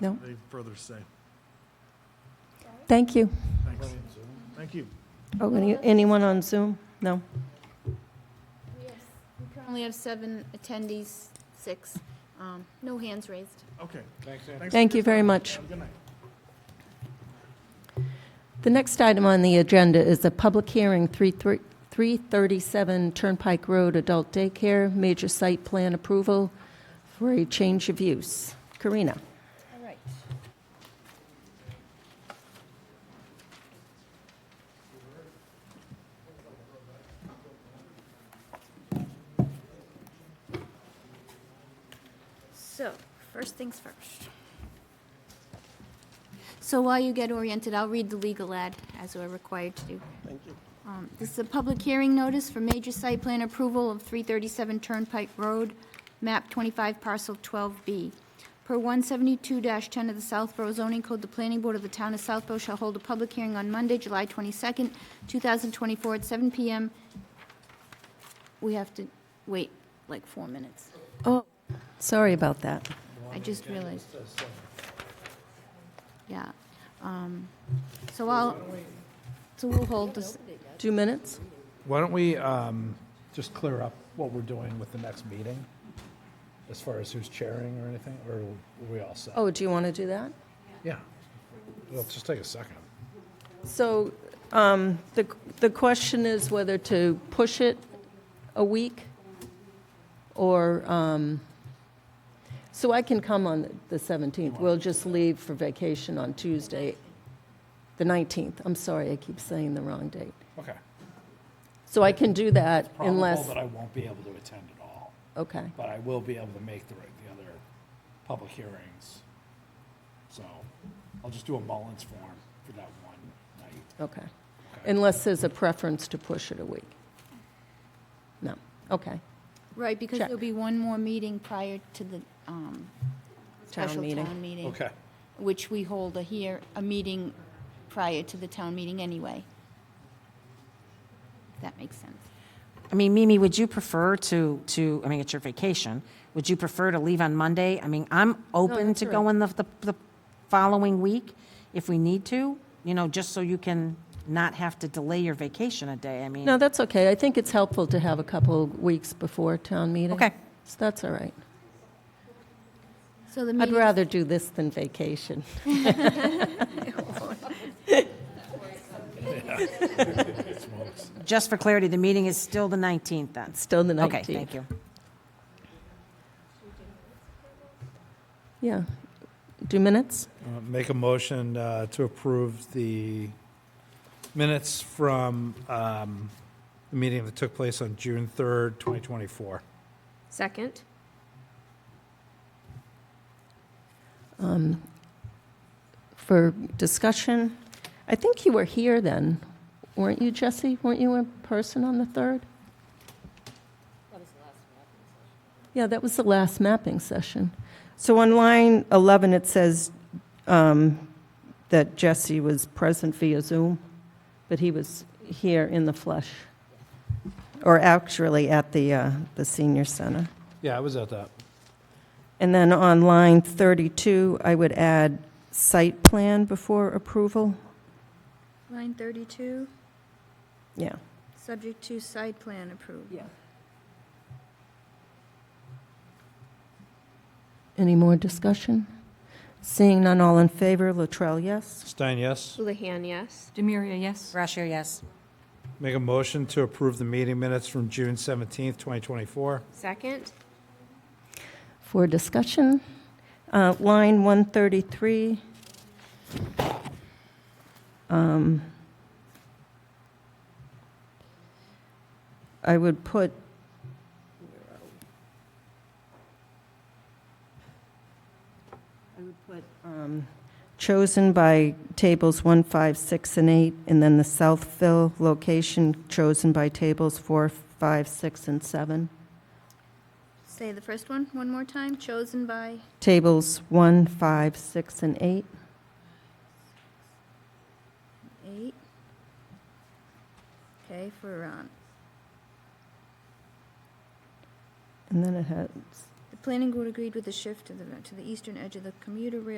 No. Anything further to say? Thank you. Thanks. Thank you. Oh, any- anyone on Zoom? No? Only have seven attendees, six, um, no hands raised. Okay. Thanks, Thank you very much. Have a good night. The next item on the agenda is a public hearing, 3 thir- 337 Turnpike Road Adult Daycare, major site plan approval for a change of use. Karina? All right. So, first things first. So while you get oriented, I'll read the legal ad as we're required to do. Thank you. Um, This is a public hearing notice for major site plan approval of 337 Turnpike Road, map 25 parcel 12B. Per 172-10 of the Southborough zoning code, the planning board of the town of Southborough shall hold a public hearing on Monday, July 22nd, 2024 at 7 PM. We have to wait like four minutes. Oh, sorry about that. I just realized. Yeah. um, So I'll, so we'll hold this, Two minutes? Why don't we um, just clear up what we're doing with the next meeting, as far as who's chairing or anything, or are we all set? Oh, do you want to do that? Yeah. Let's just take a second. So um, the the question is whether to push it a week or, um, so I can come on the 17th. We'll just leave for vacation on Tuesday, the 19th. I'm sorry, I keep saying the wrong date. Okay. So I can do that Probable unless, that I won't be able to attend at all, okay. but I will be able to make the, the other public hearings. So I'll just do a Mullins form for that one night. Okay. Okay. Unless there's a preference to push it a week. No, okay. right, because Check. there'll be one more meeting prior to the um, special meeting. town meeting. Okay. Which we hold a here, a meeting prior to the town meeting anyway. If That makes sense. I mean, Mimi, would you prefer to, to, I mean, it's your vacation, would you prefer to leave on Monday? I mean, I'm open that's to all going the, the, the following week if we need to, you know, just so you can not have to delay your vacation a day, I mean. No, that's okay. I think it's helpful to have a couple weeks before town meeting. Okay. So that's all right. So the I'd meeting, rather do this than vacation. Just for clarity, the meeting is still the 19th then? Still the 19th. Okay, thank you. Yeah. Do minutes? Uh, Make a motion uh, to approve the minutes from um, the meeting that took place on June 3rd, 2024. Second? For discussion? I think you were here then, weren't you, Jesse? Weren't you in person on the 3rd? Yeah, that was the last mapping session. So on line 11, it says um, that Jesse was present via Zoom, but he was here in the flesh, or actually at the, uh, the senior center. Yeah, I was at that. And then on line 32, I would add site plan before approval. line 32, Yeah. subject to site plan approved. Any more discussion? Seeing none, all in favor, Latrell, yes? Stein, yes. Houlihan, yes. Demiria, yes. Brashear, yes. Make a motion to approve the meeting minutes from June 17th, 2024. Second? For discussion? Uh, Line 133. um, I would put. I would put. um, Chosen by tables 1, 5, 6, and 8, and then the Southville location chosen by tables 4, 5, 6, and 7. Say the first one, one more time, chosen by, Tables 1, 5, 6, and 8. Eight. Okay, for, um, And then it has the planning board agreed with the shift to the, to the eastern edge of the commuter rail